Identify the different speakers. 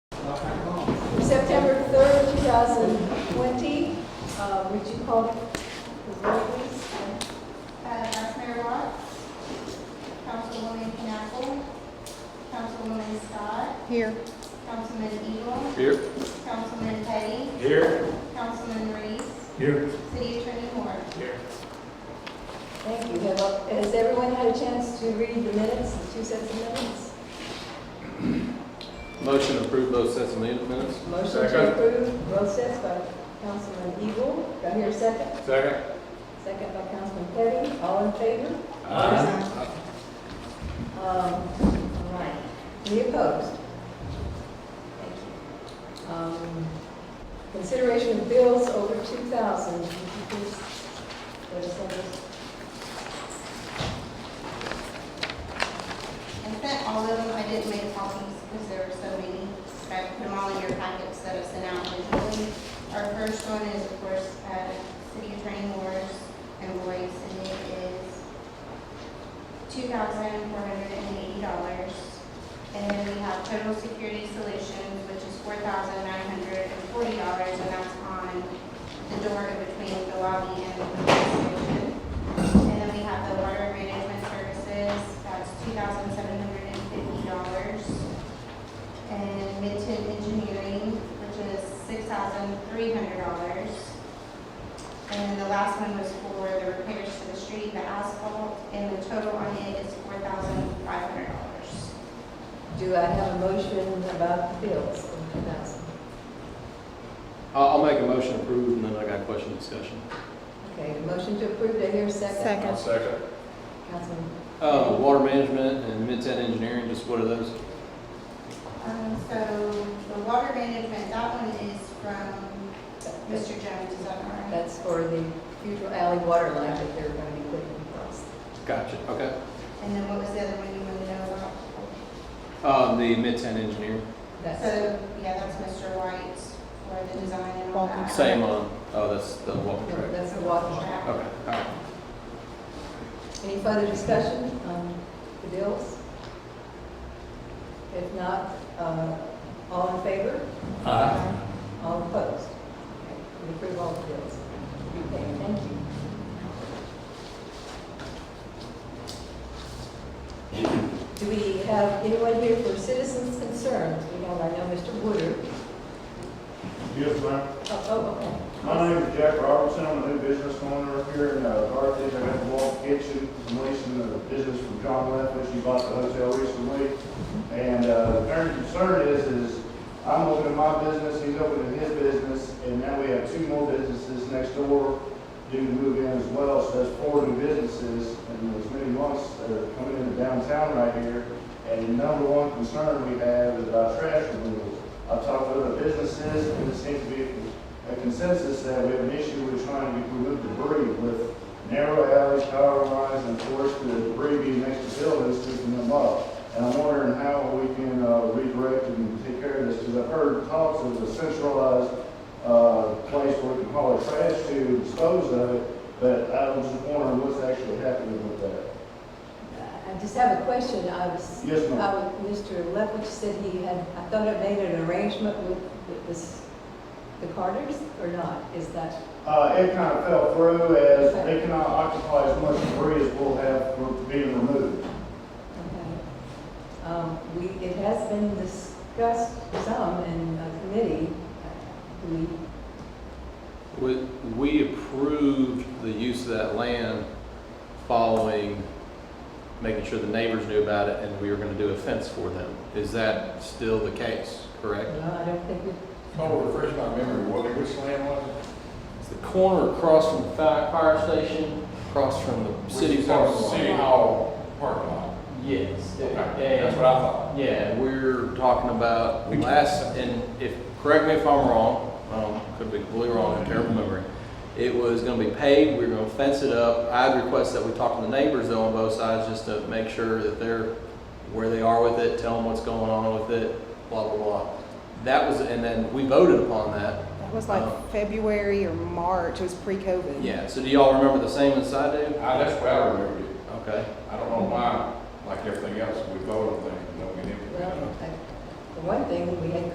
Speaker 1: September 3rd, 2020. Uh, Would you call the roll, please?
Speaker 2: Uh, Vice Mayor Watts. Councilwoman Knappel. Councilwoman Scott.
Speaker 1: Here.
Speaker 2: Councilman Eagle.
Speaker 3: Here.
Speaker 2: Councilman Petty.
Speaker 3: Here.
Speaker 2: Councilman Reese.
Speaker 3: Here.
Speaker 2: City Attorney Moore.
Speaker 3: Here.
Speaker 1: Thank you. Have- Has everyone had a chance to read the minutes, the two sets of minutes?
Speaker 3: Motion to approve both sets of minutes.
Speaker 1: Motion to
Speaker 3: Second.
Speaker 1: approve, both sets by Councilman Eagle. Do I hear a second?
Speaker 3: Second.
Speaker 1: Second by Councilman Petty. All in favor? Um, All right. Any opposed? Thank you. Um, Consideration of bills over 2,000. Would you please let us know those?
Speaker 2: I sent all of them, I didn't make copies because there were so many. I put them all in your packets that I sent out visually. Our first one is, of course, uh, City Attorney Moore's and Roy's, and it is two thousand four hundred and eighty dollars. And then we have Total Security Solutions, which is four thousand nine hundred and forty dollars, and that's on the door in between the lobby and the police station. And then we have the water management services, that's two thousand seven hundred and fifty dollars. And Minton Engineering, which is six thousand three hundred dollars. And the last one was for the repairs to the street, the asphalt, and the total on it is four thousand five hundred dollars.
Speaker 1: Do I have a motion about the bills over 2,000?
Speaker 3: I'll, I'll make a motion to approve, and then I got question discussion.
Speaker 1: Okay, a motion to approve. Do I hear a second?
Speaker 4: Second.
Speaker 3: Second.
Speaker 1: Councilman,
Speaker 3: Uh, water management and mid-ten engineering, just what are those?
Speaker 2: Um, so the water management, that one is from Mr. Jones, is that right?
Speaker 1: that's for the future alley water line that they're going to be putting across.
Speaker 3: Gotcha, okay.
Speaker 2: And then what was the other one you wanted to know about?
Speaker 3: Um, the mid-ten engineering,
Speaker 1: That's,
Speaker 2: So, yeah, that's Mr. White for the design and all that.
Speaker 3: same on, oh, that's the walking track.
Speaker 1: that's the walking track.
Speaker 3: Okay, all right.
Speaker 1: Any further discussion on the bills? If not, uh, all in favor? All opposed? Okay, We approve all the bills. Okay, thank you. Do we have anyone here for citizens' concerns? We have, I know Mr. Woodard.
Speaker 5: Yes, ma'am.
Speaker 1: Oh, oh,
Speaker 5: My name is Jack Robertson, I'm a new business owner here in uh, Carthage. I got the Walt Kitchen, I'm leasing the business from John Leffish, who bought the hotel recently. And uh, the parent concern is, is I'm opening my business, he's opening his business, and now we have two more businesses next door due to move in as well, so that's four new businesses, and there's many months that are coming into downtown right here. And the number one concern we have is about trash removal. I've talked to other businesses, and it seems to be a consensus that we have an issue with trying to remove debris with narrow alleys, power lines, and force the debris being next to buildings to clean them up. And I'm wondering how we can uh, redirect and take care of this, because I've heard talks of a centralized uh, place where we can haul our trash to and dispose of it, but I was just wondering what's actually happening with that.
Speaker 1: oh. I just have a question. I was.
Speaker 5: Yes, ma'am.
Speaker 1: I was- Mr. Lefkovich said he had, I thought it made an arrangement with with this- the Carters or not? Is that?
Speaker 5: Uh, it kind of fell through as they cannot occupy as much debris as we'll have from being removed.
Speaker 1: Okay. Um, We, it has been discussed some in a committee. Do We,
Speaker 3: We, we approved the use of that land following, making sure the neighbors knew about it, and we were gonna do a fence for them. Is that still the case, correct?
Speaker 1: no, I don't think we,
Speaker 6: Oh, refresh my memory, what, which land was
Speaker 3: It's the corner across from the fire, fire station, across from the
Speaker 6: it?
Speaker 3: city
Speaker 6: Which is
Speaker 3: park.
Speaker 6: on City Hall parking lot.
Speaker 3: Yes.
Speaker 6: Okay,
Speaker 3: and-
Speaker 6: That's what I thought.
Speaker 3: Yeah, we're talking about last, and if, correct me if I'm wrong, um, could be completely wrong, I have terrible memory. It was gonna be paved, we were gonna fence it up. I'd request that we talk to the neighbors though on both sides, just to make sure that they're where they are with it, tell them what's going on with it, blah, blah, blah. That was, and then we voted upon that.
Speaker 4: That was like February or March, it was pre-COVID.
Speaker 3: Yeah, so do y'all remember the same as I do?
Speaker 6: I, that's where I remembered it.
Speaker 3: Okay.
Speaker 6: I don't know why, like everything else, we voted on things, and don't get implemented.
Speaker 1: well, I- the one thing, we had